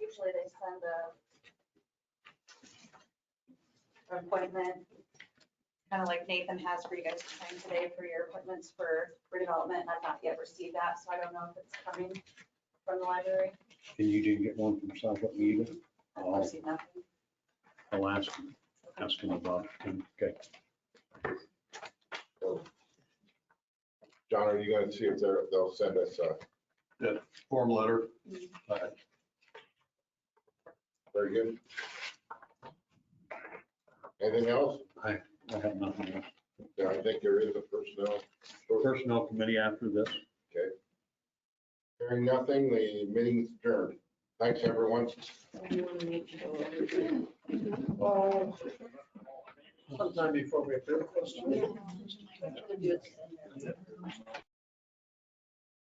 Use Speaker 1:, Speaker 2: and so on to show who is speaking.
Speaker 1: usually they send a an appointment, kind of like Nathan has for you guys to sign today for your appointments for redevelopment. I've not yet received that, so I don't know if it's coming from the library.
Speaker 2: And you didn't get one from Southwood either?
Speaker 1: I've
Speaker 2: Oh.
Speaker 1: received nothing.
Speaker 2: I'll ask him, ask him about it. Okay.
Speaker 3: John, are you gonna see if they're, they'll send us a,
Speaker 4: form letter.
Speaker 3: very good? Anything else?
Speaker 2: I have nothing else.
Speaker 3: Yeah, I think there is a personnel. short-
Speaker 2: Personnel committee after this.
Speaker 3: Hearing nothing, the meeting's adjourned. Thanks, everyone.
Speaker 4: Sometime before we have.